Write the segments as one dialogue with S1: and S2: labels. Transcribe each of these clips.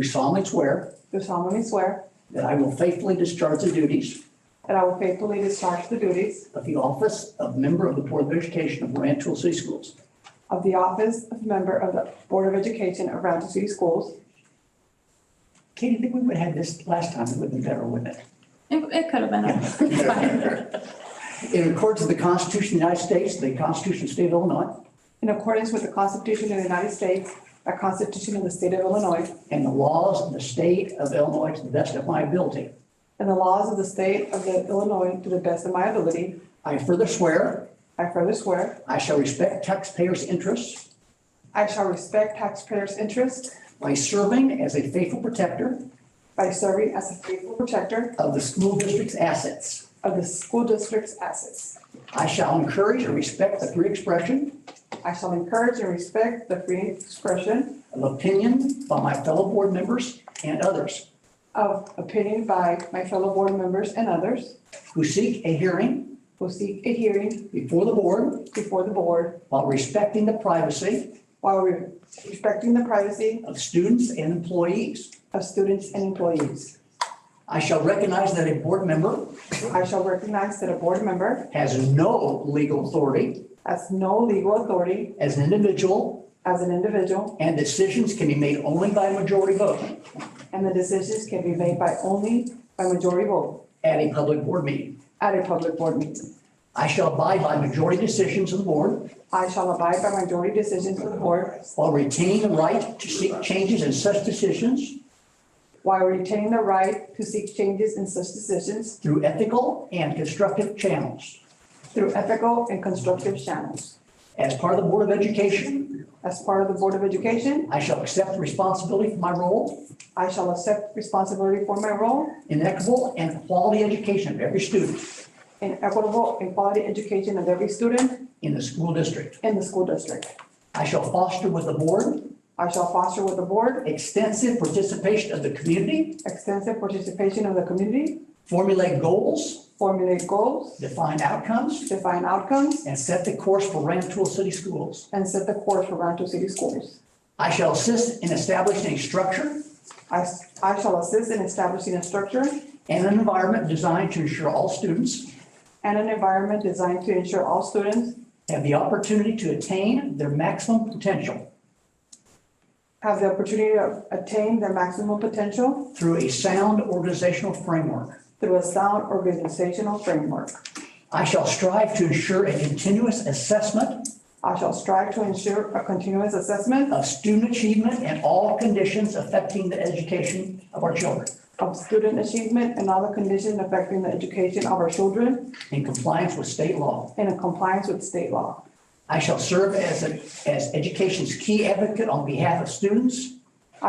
S1: do solemnly swear
S2: do solemnly swear
S1: that I will faithfully discharge the duties
S2: that I will faithfully discharge the duties
S1: of the office of member of the Board of Education of Rancho City Schools
S2: of the office of member of the Board of Education of Roundup City Schools.
S1: Katie, I think we would have had this last time, it would have been better, wouldn't it?
S3: It, it could have been. a- it's fine.
S1: In accordance with the Constitution of the United States, the Constitution of the State of Illinois,
S2: In accordance with the Constitution of the United States, the Constitution of the State of Illinois,
S1: and the laws of the state of Illinois to the best of my ability.
S2: and the laws of the State of the Illinois to the best of my ability,
S1: I further swear
S2: I further swear
S1: I shall respect taxpayers' interests
S2: I shall respect taxpayers' interests
S1: by serving as a faithful protector
S2: by serving as a faithful protector
S1: of the school district's assets.
S2: of the school district's assets.
S1: I shall encourage and respect the free expression
S2: I shall encourage and respect the free expression
S1: of opinion by my fellow board members and others
S2: of opinion by my fellow board members and others
S1: who seek a hearing
S2: who seek a hearing
S1: before the board
S2: before the board
S1: while respecting the privacy
S2: while respecting the privacy
S1: of students and employees.
S2: of students and employees.
S1: I shall recognize that a board member
S2: I shall recognize that a board member
S1: has no legal authority
S2: has no legal authority
S1: as an individual
S2: as an individual
S1: and decisions can be made only by majority vote
S2: and the decisions can be made by only by majority vote
S1: at a public board meeting.
S2: at a public board meeting.
S1: I shall abide by majority decisions of the board
S2: I shall abide by majority decisions of the board
S1: while retaining the right to seek changes in such decisions
S2: while retaining the right to seek changes in such decisions
S1: through ethical and constructive channels.
S2: through ethical and constructive channels.
S1: As part of the Board of Education,
S2: As part of the Board of Education,
S1: I shall accept the responsibility for my role
S2: I shall accept responsibility for my role
S1: in equitable and quality education of every student
S2: in equitable and quality education of every student
S1: in the school district.
S2: in the school district.
S1: I shall foster with the board
S2: I shall foster with the board
S1: extensive participation of the community,
S2: extensive participation of the community,
S1: formulate goals,
S2: formulate goals,
S1: define outcomes,
S2: define outcomes,
S1: and set the course for Rantoul City Schools.
S2: and set the course for Rancho City Schools.
S1: I shall assist in establishing a structure
S2: I I shall assist in establishing a structure
S1: and an environment designed to ensure all students
S2: and an environment designed to ensure all students
S1: have the opportunity to attain their maximum potential
S2: have the opportunity to attain their maximum potential
S1: through a sound organizational framework.
S2: through a sound organizational framework.
S1: I shall strive to ensure a continuous assessment
S2: I shall strive to ensure a continuous assessment
S1: of student achievement and all conditions affecting the education of our children
S2: of student achievement and other conditions affecting the education of our children
S1: in compliance with state law.
S2: and in compliance with state law.
S1: I shall serve as, a- as education's key advocate on behalf of students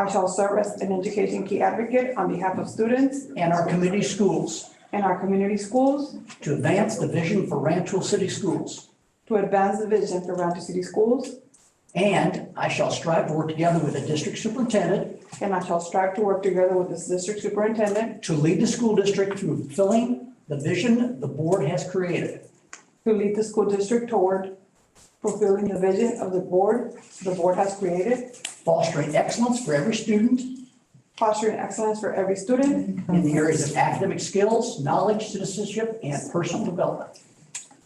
S2: I shall serve as an education key advocate on behalf of students
S1: and our community schools
S2: and our community schools
S1: to advance the vision for Rantoul City Schools.
S2: to advance the vision for Rancho City Schools,
S1: And I shall strive to work together with the district superintendent
S2: and I shall strive to work together with the district superintendent
S1: to lead the school district through fulfilling the vision the board has created.
S2: to lead the school district toward fulfilling the vision of the board, the board has created,
S1: fostering excellence for every student
S2: fostering excellence for every student
S1: in the areas of academic skills, knowledge, citizenship, and personal development.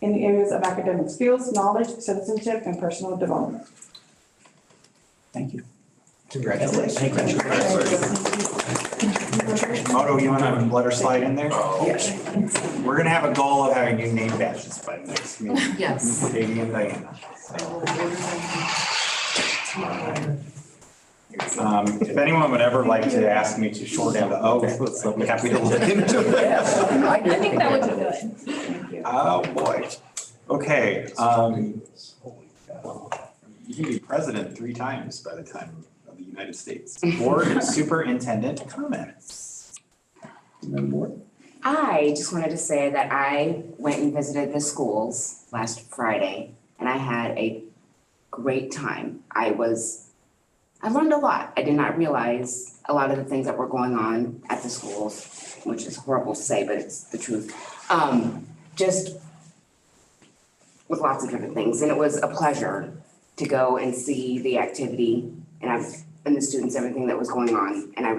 S2: in the areas of academic skills, knowledge, citizenship, and personal development.
S1: Thank you.
S4: Congratulations.
S2: Congratulations.
S4: Moto, you want to let her slide in there?
S1: Yes.
S4: We're going to have a goal of having you name badges by the next meeting.
S5: Yes.
S4: Katie and Diana. Um, If anyone would ever like to ask me to shorten the oath, I'd be happy to look into it.
S1: I
S3: I think that would be good. Thank you.
S4: Oh, boy. Okay. um, You can be president three times by the time of the United States. Board superintendent comments.
S1: Madam Board,
S5: I just wanted to say that I went and visited the schools last Friday and I had a great time. I was, I learned a lot. I did not realize a lot of the things that were going on at the schools, which is horrible to say, but it's the truth. Um, just with lots of different things. And it was a pleasure to go and see the activity and I, and the students, everything that was going on. And I